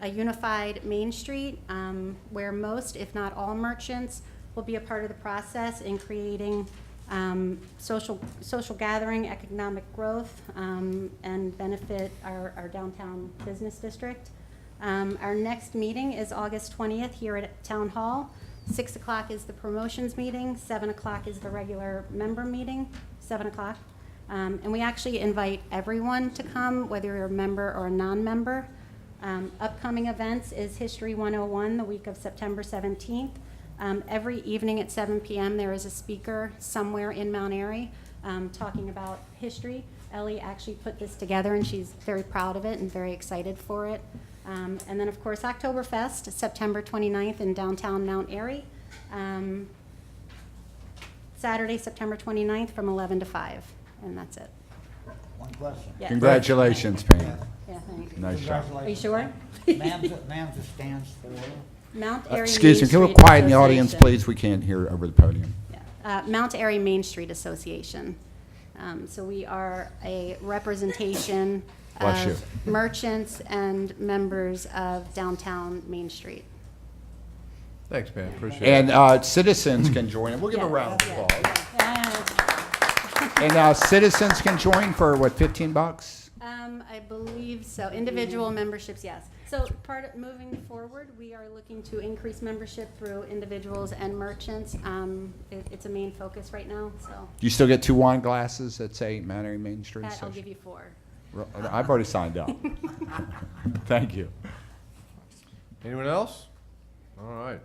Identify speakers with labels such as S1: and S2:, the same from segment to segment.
S1: a unified Main Street um, where most, if not all, merchants will be a part of the process in creating um, social, social gathering, economic growth, um, and benefit our our downtown business district. Um, Our next meeting is August 20th here at Town Hall. 6 o'clock is the promotions meeting, 7 o'clock is the regular member meeting, 7 o'clock. Um, And we actually invite everyone to come, whether you're a member or a non-member. Um, Upcoming events is History 101, the week of September 17th. Um, Every evening at 7 PM, there is a speaker somewhere in Mount Airy um, talking about history. Ellie actually put this together, and she's very proud of it and very excited for it. Um, And then, of course, Oktoberfest, September 29th in downtown Mount Airy. Um, Saturday, September 29th, from 11 to 5, and that's it.
S2: One question.
S1: Yeah.
S3: Congratulations, Pam.
S1: Yeah, thanks.
S3: Nice job.
S1: Are you sure?
S2: Mamza, Mamza stands for,
S1: Mount
S3: Uh,
S1: Airy.
S3: Excuse
S1: Main
S3: me, can we
S1: Street
S3: quiet in the audience,
S1: Association.
S3: please? We can't hear over the podium.
S1: Yeah. Uh, Mount Airy Main Street Association. Um, So we are a representation
S3: Bless you.
S1: of merchants and members of downtown Main Street.
S4: Thanks, man, appreciate it.
S3: And uh, citizens can join, and we'll give a
S1: Yeah.
S3: round of
S1: Yeah.
S3: applause.
S1: Yeah.
S3: And uh, citizens can join for, what, 15 bucks?
S1: Um, I believe so. Individual memberships, yes. So part of, moving forward, we are looking to increase membership through individuals and merchants. Um, it- It's a main focus right now, so
S3: You still get two wine glasses that say Mount Airy Main Street?
S1: Pat, I'll
S3: Association?
S1: give you four.
S3: Ro- I've already signed up. Thank you.
S4: Anyone else? All right.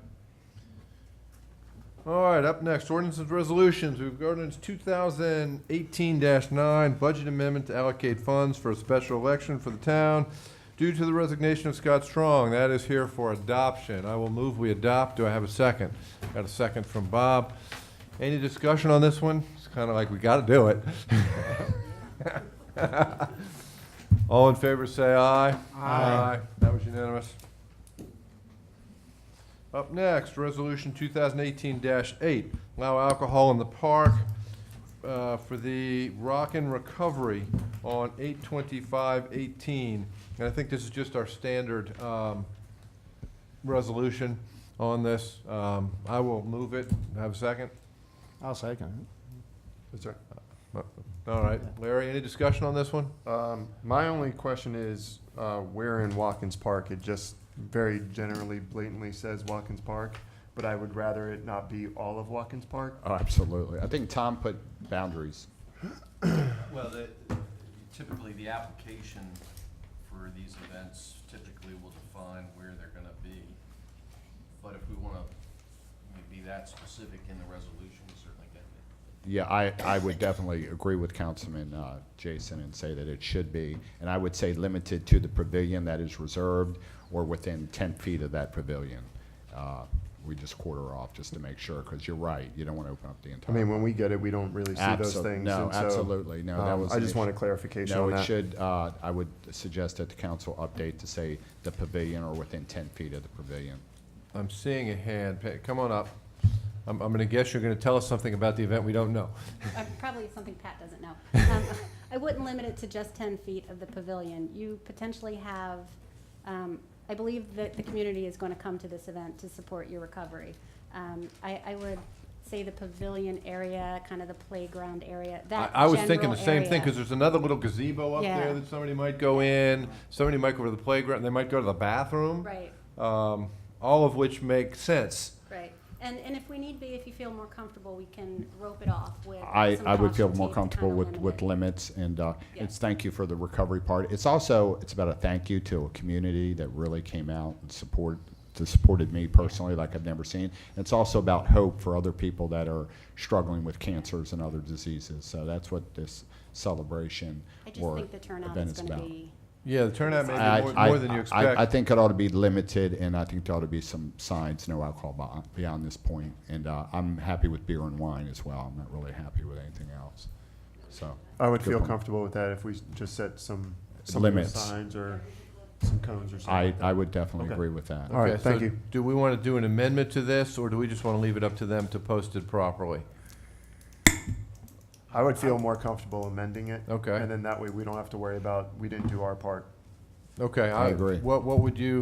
S4: All right, up next, ordinance and resolutions. We've got ordinance two thousand eighteen nine, budget amendment to allocate funds for a special election for the town due to the resignation of Scott Strong. That is here for adoption. I will move we adopt. Do I have a second? Got a second from Bob. Any discussion on this one? It's kind of like we got to do it. All in favor, say aye. Aye. That was unanimous. Up next, resolution two thousand eighteen eight, allow alcohol in the park, uh, for the Rockin' Recovery on eight twenty-five eighteen. And I think this is just our standard, um, resolution on this. Um, I will move it. Have a second?
S5: I'll second
S4: Is there? Uh, All right. Larry, any discussion on this one?
S6: Um, my only question is, uh, where in Watkins Park? It just very generally blatantly says Watkins Park, but I would rather it not be all of Watkins Park.
S3: Oh, absolutely. I think Tom put boundaries.
S7: Well, the- typically, the application for these events typically will define where they're gonna be. But if we wanna be that specific in the resolution, we certainly can be.
S3: Yeah, I, I would definitely agree with Councilman uh, Jason and say that it should be, and I would say limited to the pavilion that is reserved or within 10 feet of that pavilion. Uh, We just quarter off just to make sure, because you're right, you don't want to open up the
S6: I
S3: entire.
S6: mean, when we get it, we don't really see those
S3: Absol-
S6: things.
S3: no,
S6: and so,
S3: absolutely. No, that
S6: um,
S3: was
S6: I
S3: an
S6: just
S3: issue.
S6: wanted clarification
S3: No,
S6: on
S3: it
S6: that.
S3: should, uh, I would suggest that the council update to say the pavilion or within 10 feet of the pavilion.
S4: I'm seeing a hand. Pa- Come on up. I'm, I'm gonna guess you're gonna tell us something about the event we don't know.
S1: Uh, Probably something Pat doesn't know. Um, I wouldn't limit it to just 10 feet of the pavilion. You potentially have, um, I believe that the community is going to come to this event to support your recovery. Um, I I would say the pavilion area, kind of the playground area,
S4: I,
S1: that
S4: I was thinking
S1: general
S4: the same thing,
S1: area.
S4: because there's another little gazebo up
S1: Yeah.
S4: there that somebody might go in, somebody might go to the playground, they might go to the bathroom.
S1: Right.
S4: Um, all of which make sense.
S1: Right, and, and if we need be, if you feel more comfortable, we can rope it off with.
S3: I,
S1: some
S3: I would feel
S1: caution
S3: more
S1: tape to
S3: comfortable
S1: kinda
S3: with,
S1: limit
S3: with
S1: it.
S3: limits, and uh,
S1: Yeah.
S3: it's thank you for the recovery part. It's also, it's about a thank you to a community that really came out and support, that supported me personally like I've never seen. It's also about hope for other people that are struggling with cancers and other diseases, so that's what this celebration
S1: I just
S3: or
S1: think the turnout
S3: event
S1: is
S3: is
S1: gonna
S3: about.
S1: be,
S4: Yeah, the turnout may
S3: I-
S4: be more,
S3: I-
S4: more than you
S3: I- I
S4: expect.
S3: think it ought to be limited, and I think there ought to be some signs, no alcohol bo- beyond this point. And uh, I'm happy with beer and wine as well. I'm not really happy with anything else, so.
S6: I would
S3: Good
S6: feel
S3: point.
S6: comfortable with that if we s- just set some, some
S3: Limits.
S6: signs or some cones or something.
S3: I,
S6: like that.
S3: I would definitely
S6: Okay.
S3: agree with that.
S6: All right,
S4: Okay, so
S6: thank you.
S4: Do we want to do an amendment to this, or do we just want to leave it up to them to post it properly?
S6: I would feel more comfortable amending it.
S4: Okay.
S6: And then that way we don't have to worry about, we didn't do our part.
S4: Okay,
S3: I agree.
S4: What, what would you?